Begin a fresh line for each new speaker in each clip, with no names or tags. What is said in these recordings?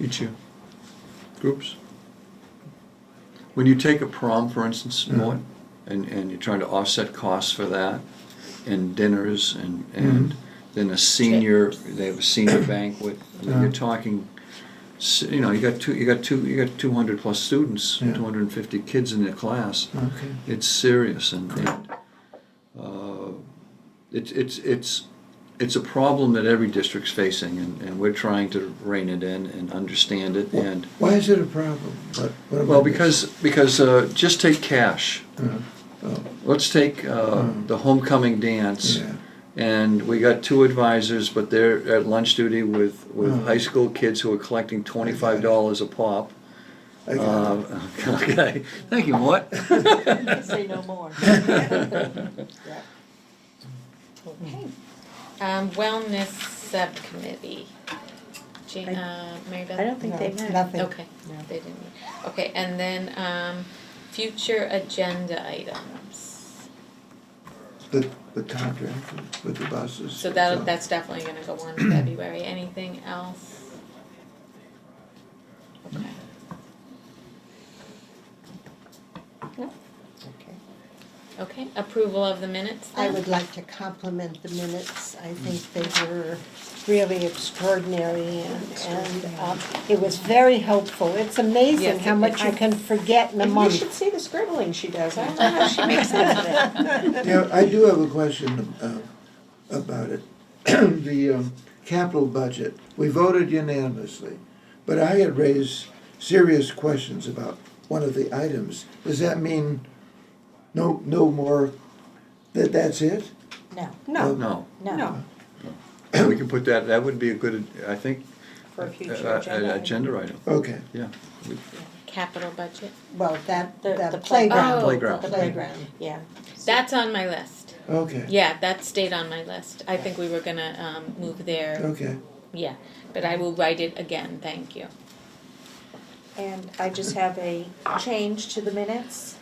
each year.
groups? When you take a prom, for instance,
Mm-hmm.
Mort, and, and you're trying to offset costs for that, and dinners, and,
Mm-hmm.
and then a senior, they have a senior banquet, I mean,
Yeah.
you're talking, s- you know, you got two, you got two, you got two hundred plus students,
Yeah.
two hundred and fifty kids in their class.
Okay.
It's serious and, and, uh, it's, it's, it's, it's a problem that every district's facing, and, and we're trying to rein it in and understand it, and
Why is it a problem? What- what am I
well,
missing?
because, because, uh, just take cash.
Uh, oh,
Let's take, uh,
Mm.
the homecoming dance.
yeah.
And we got two advisors, but they're at lunch duty with, with
Mm.
high school kids who are collecting twenty-five dollars a pop.
I got it.
Uh, okay, thank you, Mort.
Say no more. Yeah.
Okay. Um, wellness subcommittee. Ja- uh, Mary Beth?
I don't think
No,
they met.
nothing.
Okay,
No.
they didn't. meet. Okay, and then, um, future agenda items.
The, the contract with the buses.
So that, that's definitely gonna go on in February. Anything else? Okay.
Okay.
Okay, approval of the minutes
I
then?
would like to compliment the minutes. I think they were really extraordinary and, and, um, it was very helpful. It's amazing
Yes,
how
it-
much you can forget in a
And you should
month.
see the scribbling she does. I don't know how she makes sense of that.
Yeah, I do have a question uh, about it. The um, capital budget, we voted unanimously, but I had raised serious questions about one of the items. Does that mean no, no more, that that's it?
No,
No,
No,
no,
we can put that, that would be a good, I think,
for a
a-
future
a-
agenda.
a- Uh, agenda item,
Okay,
yeah.
Capital budget.
well, that,
The- the
that
play-
Oh,
playground,
Playground.
the playground.
Yeah.
That's on my list.
okay,
Yeah, that stayed on my list. I think we were gonna, um, move there
okay.
Yeah, but I will write it again, thank you.
And I just have a change to the minutes.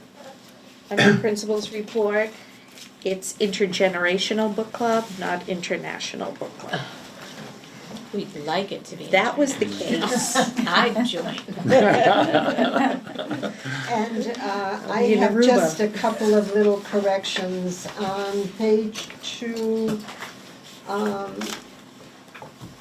Under principals report, it's intergenerational book club, not international book club.
We'd like it to be.
That was the case.
I joined.
And uh, I
Rita
have
Ruba.
just a couple of little corrections. On page two, um,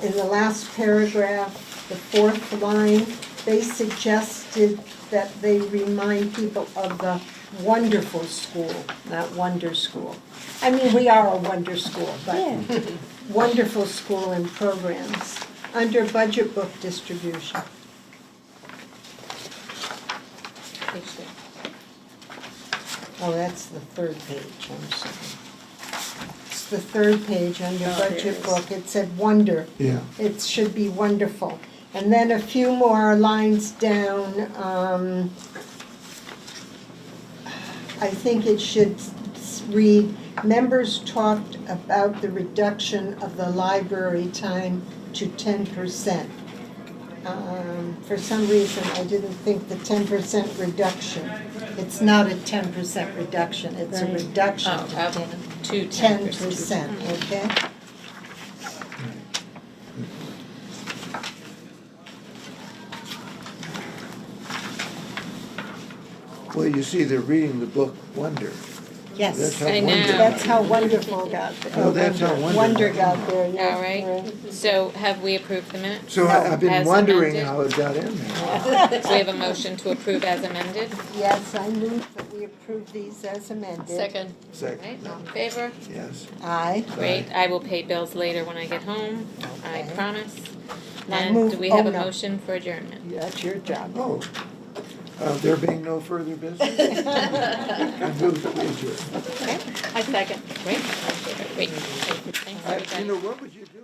in the last paragraph, the fourth line, they suggested that they remind people of the wonderful school, not wonder school. I mean, we are a wonder school, but wonderful school and programs. Under budget book distribution, Oh, that's the third page, I'm sorry. It's the third page on your
Oh, there it
budget
is.
book, it said wonder.
Yeah.
It should be wonderful. And then a few more lines down, um, I think it should s- read, members talked about the reduction of the library time to ten percent. Um, for some reason, I didn't think the ten percent reduction, it's not a ten percent reduction, it's a
Right.
reduction
Oh,
to
up
ten
to
ten percent, okay?
Well, you see, they're reading the book Wonder. That's
Yes,
how
I
wonderful.
know.
that's how wonderful got there.
Oh, that's how wonderful.
Wonder got there, yeah.
All right, so have we approved the minutes?
So I- I've been
As
wondering
amended.
how it got in there.
Do we have a motion to approve as amended?
Yes, I move that we approve these as amended.
Second. Right,
Second,
all in favor?
yes.
Aye.
Great, I will pay bills later when I get home, I
Okay.
promise.
Now
And
move-
do we have
oh,
a
no.
motion for adjournment?
That's your job.
Oh, uh, there being no further business, I move that we adjourn.
I second. Great, great, thanks
I-
everybody.
Uh, You know, what would you do?